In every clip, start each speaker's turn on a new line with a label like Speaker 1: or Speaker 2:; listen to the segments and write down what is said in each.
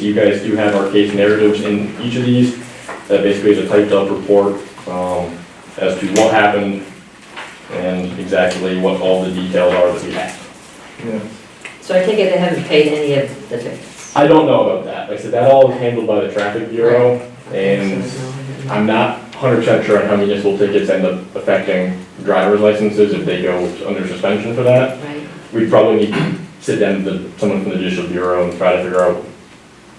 Speaker 1: You guys do have our case narratives in each of these. That basically is a typed up report um, as to what happened and exactly what all the details are that we have.
Speaker 2: Yeah,
Speaker 3: So I take it they haven't paid any of the tickets?
Speaker 1: I don't know about that. Like I said, that all is handled by the traffic bureau and I'm not hundred percent sure on how municipal tickets end up affecting driver's licenses if they go under suspension for that.
Speaker 3: Right,
Speaker 1: We probably need to sit down with someone from the judicial bureau and try to figure out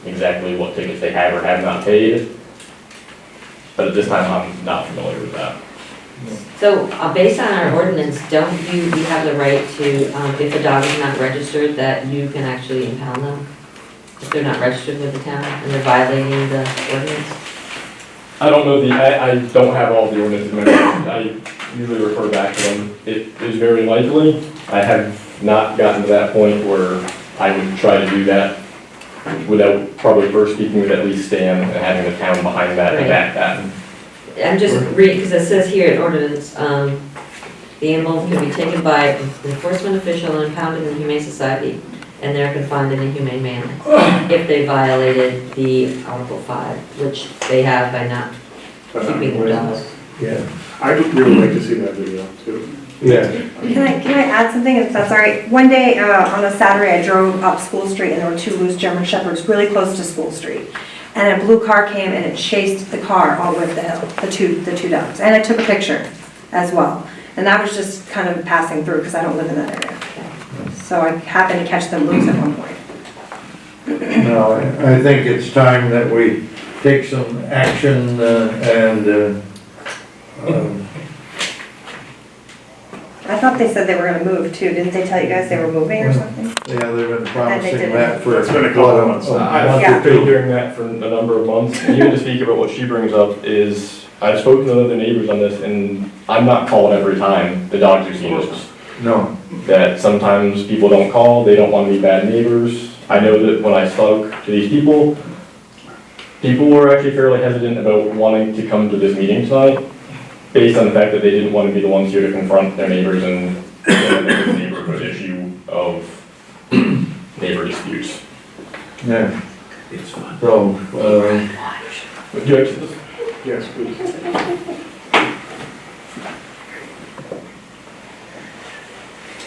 Speaker 1: exactly what tickets they have or have not paid. But at this time, I'm not familiar with that.
Speaker 3: so uh, based on our ordinance, don't you, you have the right to, um, if a dog is not registered, that you can actually impound them? If they're not registered with the town and they're violating the ordinance?
Speaker 1: I don't know the, I, I don't have all the ordinances in my mind. I usually refer back to them. It is very likely. I have not gotten to that point where I would try to do that without probably first speaking with at least Stan and having the town behind that and back that.
Speaker 3: I'm just reading, because it says here in ordinance, um, the animal can be taken by an enforcement official and impounded in the Humane Society and they're confined in a humane manner if they violated the Article 5, which they have by not keeping their dogs.
Speaker 2: Yeah.
Speaker 4: I'd really like to see that video too.
Speaker 2: Yeah.
Speaker 5: Can I, can I add something, if that's all right? One day, uh, on a Saturday, I drove up School Street and there were two loose German shepherds really close to School Street. And a blue car came and it chased the car all over the hill, the two, the two dogs. And I took a picture as well. And that was just kind of passing through because I don't live in that area. So I happened to catch them loose at one point.
Speaker 2: No, I I think it's time that we take some action uh, and, uh, um,
Speaker 5: I thought they said they were gonna move too, didn't they tell you guys they were moving or something?
Speaker 2: yeah, they've been promising
Speaker 5: didn't.
Speaker 2: that for.
Speaker 4: It's been a couple
Speaker 2: what,
Speaker 4: months.
Speaker 2: a- a
Speaker 1: I've
Speaker 2: month or
Speaker 5: Yeah.
Speaker 1: been
Speaker 2: Oh, two.
Speaker 1: hearing that for a number of months, and even to speak about what she brings up is, I've spoken to other neighbors on this, and I'm not calling every time the dogs are seen. It's
Speaker 2: No,
Speaker 1: That sometimes people don't call, they don't want to be bad neighbors. I know that when I spoke to these people, people were actually fairly hesitant about wanting to come to this meeting tonight, based on the fact that they didn't want to be the ones here to confront their neighbors and the neighborhood issue of neighbor disputes.
Speaker 2: yeah. So, um,
Speaker 1: Would you like to-
Speaker 4: Yes, please.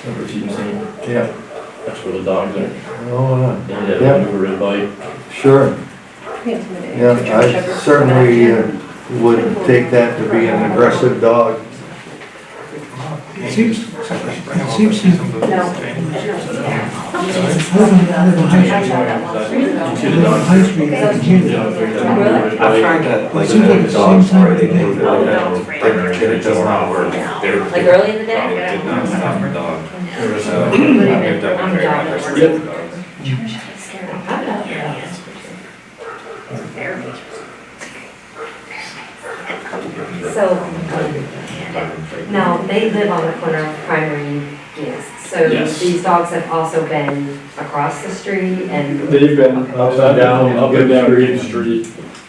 Speaker 1: Remember if you can see.
Speaker 2: yeah,
Speaker 1: That's where the dogs are.
Speaker 2: oh,
Speaker 1: Yeah,
Speaker 2: Yeah.
Speaker 1: over the bike.
Speaker 2: uh, sure, yeah, I certainly uh, would take that to be an aggressive dog.
Speaker 6: It seems, it seems simple. High Street, I can't.
Speaker 3: I've tried
Speaker 7: that,
Speaker 6: like, Seems like the dogs seems already, like they- they were
Speaker 7: it does not work.
Speaker 3: Like early in the day?
Speaker 7: did not stop for dog.
Speaker 3: So, now, they live on the corner of primary, yes, so
Speaker 1: Yes.
Speaker 3: these dogs have also been across the street and
Speaker 1: They've been upside down, up and down Green Street.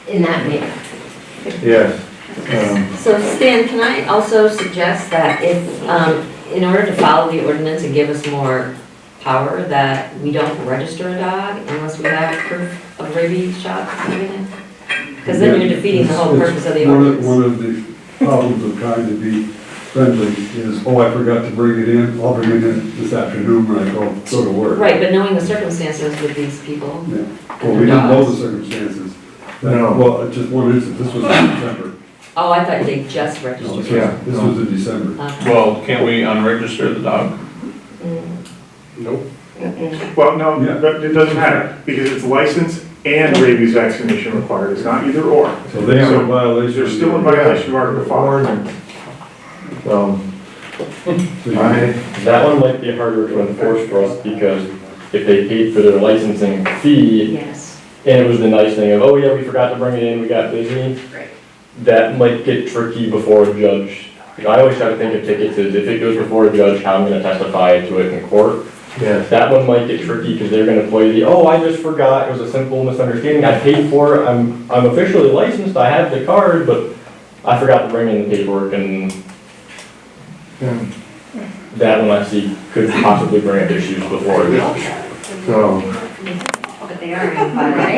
Speaker 3: in that manner.
Speaker 2: Yes. Um,
Speaker 3: So Stan, can I also suggest that if, um, in order to follow the ordinance and give us more power, that we don't register a dog unless we have proof of rabies shot coming in? Because then you're defeating the whole
Speaker 8: It's-
Speaker 3: purpose of the
Speaker 8: it's one
Speaker 3: ordinance.
Speaker 8: One of the problems of trying to be friendly is, oh, I forgot to bring it in, I'll bring it in this afternoon when I go, go to work.
Speaker 3: Right, but knowing the circumstances with these people,
Speaker 8: Yeah. Well, we didn't know the circumstances. That-
Speaker 2: No.
Speaker 8: Well, it just one instance, this was in December.
Speaker 3: oh, I thought they just
Speaker 8: No, this
Speaker 3: registered. Uh,
Speaker 8: was-
Speaker 2: Yeah.
Speaker 8: This was in December.
Speaker 3: Okay.
Speaker 7: Well, can't we unregister the dog?
Speaker 3: Mm,
Speaker 4: Nope.
Speaker 3: mm-mm.
Speaker 4: Well, no,
Speaker 8: Yeah.
Speaker 4: but it doesn't matter, because it's license and rabies vaccination required, it's not either or.
Speaker 8: So they are in violation.
Speaker 4: They're still in violation of Article Five.
Speaker 2: Warning. So,
Speaker 8: So you-
Speaker 2: I,
Speaker 1: That one might be harder to enforce for us because if they paid for their licensing fee
Speaker 3: Yes,
Speaker 1: and it was the nice thing of, oh yeah, we forgot to bring it in, we got busy.
Speaker 3: Right.
Speaker 1: That might get tricky before a judge. I always try to think of tickets as if it goes before a judge, how I'm gonna testify to it in court.
Speaker 2: yes,
Speaker 1: That one might get tricky because they're gonna play the, oh, I just forgot, it was a simple misunderstanding, I paid for it, I'm, I'm officially licensed, I have the card, but I forgot to bring in the paperwork and
Speaker 2: and
Speaker 1: that one I see could possibly bring up issues before.
Speaker 2: so.
Speaker 5: But they are in violation.